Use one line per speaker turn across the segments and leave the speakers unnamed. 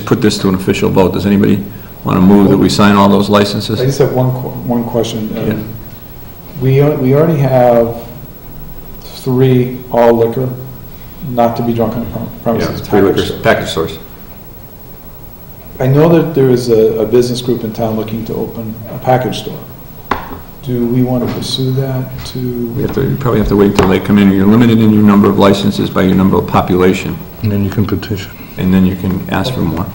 put this to an official vote. Does anybody want to move that we sign all those
I
licenses?
just have one, que- one question.
Yeah.
Um, We, al- we already have three all liquor, not to be drunk on prom-
Yeah,
premises.
Three
package
liquors,
store.
package stores.
I know that there is a, a business group in town looking to open a package store. Do we want to pursue that
We
to,
have to, you probably have to wait until they come in. You're limited in your number of licenses by your number of population,
And then you can petition.
and then you can ask for more.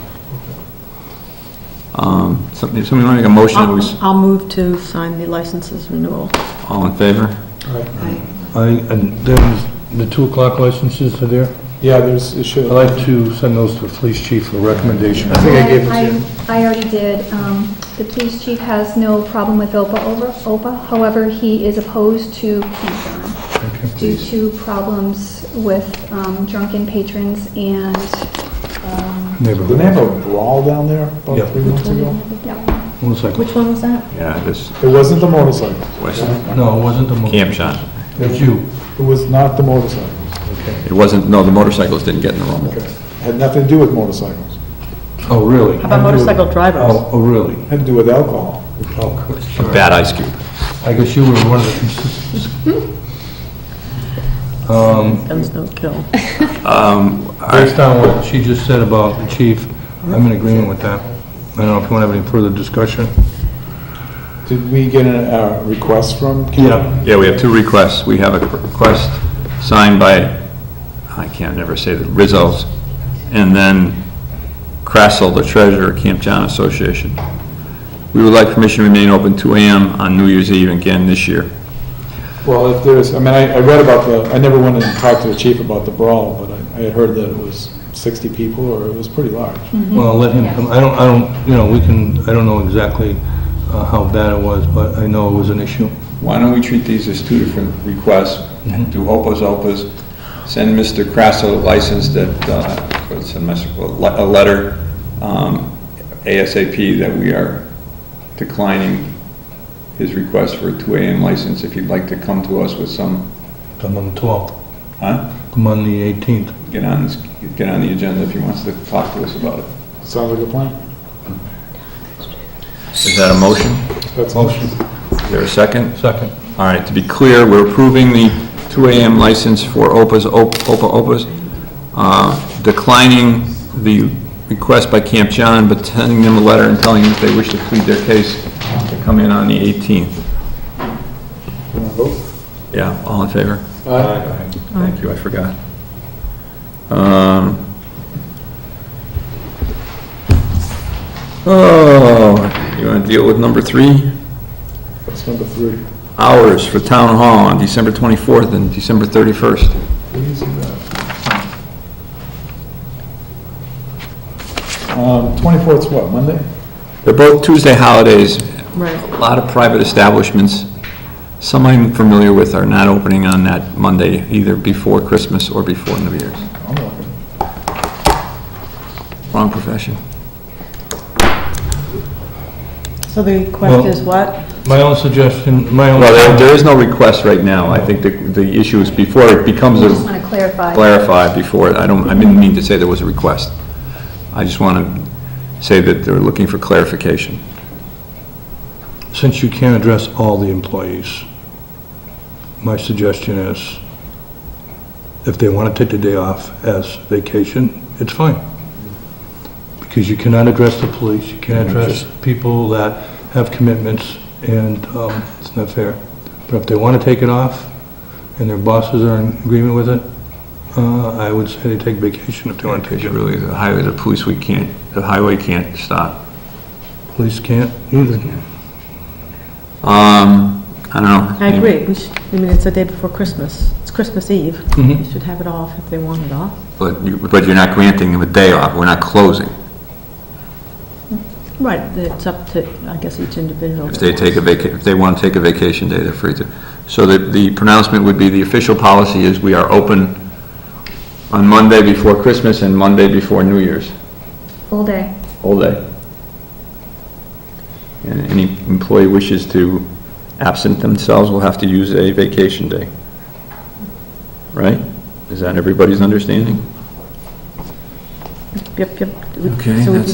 Um, Somebody, somebody want to make a motion? that we s-
I'll I'll move to sign the licenses renewal.
All in favor?
all right.
I, and then the two o'clock licenses are there.
yeah, there's, it
I'd
should.
like to send those to the police chief for recommendation.
I think I gave it to
I-
you.
I already did. Um, The police chief has no problem with OPA over, OPA. However, he is opposed to Keystone due to problems with um, drunken patrons and, um,
Didn't
Neighborhood.
they have a brawl down there
Yeah.
about three months ago?
yeah.
One second.
Which one was that?
Yeah, this,
It wasn't the motorcycle.
West,
No, it wasn't the. mo-
Camp Shot.
It's you.
It was not the motorcycle.
It wasn't, no, the motorcycles didn't get in the rumble.
Had nothing to do with motorcycles.
Oh, really?
How about motorcycle drivers?
Oh, oh, really? Oh,
Had to do with alcohol.
A bad ice cube.
I guess you were one of the consistents. Um,
Guns don't kill.
Based on what she just said about the chief, I'm in agreement with that. I don't know if you want to have any further discussion.
Did we get a, a request from? Ken?
Yeah, we have two requests. We have a request signed by, I can't never say the Rizzo's, and then Crassel, the treasurer, Camp John Association. We would like permission to remain open 2 AM on New Year's Eve again this year.
Well, if there's, I mean, I, I read about the, I never went and talked to the chief about the brawl, but I, I had heard that it was sixty people, or it was pretty large.
Well, let him come, I don't, I don't, you know, we can, I don't know exactly uh, how bad it was, but I know it was an issue.
Why don't we treat these as two different requests? Do Opus Opus, send Mr. Crasso a license that, uh, or send Mr. a le- a letter um, ASAP that we are declining his request for a 2 AM license if he'd like to come to us with some,
Come on the 12th,
huh?
come on the 18th.
Get on, this- get on the agenda if he wants to talk to us about it.
Sounds like a plan.
Is that a motion?
That's
Motion,
Is there a second?
second.
All right, to be clear, we're approving the 2 AM license for Opus, Op- Opa Opas, uh, declining the request by Camp John, but sending them a letter and telling them if they wish to plead their case, to come in on the 18th.
You wanna vote?
Yeah, all in favor?
Aye.
Thank you, I forgot. Um, Oh, you want to deal with number three?
That's number three.
Hours for Town Hall on December 24th and December 31st.
What is that? Um, twenty-fourth's what, Monday?
They're both Tuesday holidays.
Right.
A lot of private establishments, some I'm familiar with, are not opening on that Monday, either before Christmas or before New Year's.
I'm open.
Wrong profession.
So the question is what?
My own suggestion, my own...
Well, there- there is no request right now. I think the, the issue is before it becomes
I just want
a,
to clarify.
clarify before, I don't, I didn't mean to say there was a request. I just want to say that they're looking for clarification.
Since you can't address all the employees, my suggestion is, if they want to take the day off as vacation, it's fine. Because you cannot address the police, you can't address people that have commitments, and um, it's not fair. But if they want to take it off, and their bosses are in agreement with it, uh, I would say they take vacation if they want to take
Because
it.
you really, the highway, the police, we can't, the highway can't stop.
Police can't either.
Um, I don't know.
I agree, we should, I mean, it's the day before Christmas, it's Christmas Eve.
Mhm.
You should have it off if they want it off.
But, you- but you're not granting them a day off, we're not closing.
Right, it's up to, I guess, each individual.
If they take a vaca, if they want to take a vacation day, they're free to. So the, the pronouncement would be, the official policy is we are open on Monday before Christmas and Monday before New Year's,
Full day.
all day. And any employee wishes to absent themselves will have to use a vacation day. Right? Is that everybody's understanding?
The
yep, yep.
Okay,
So we
that's-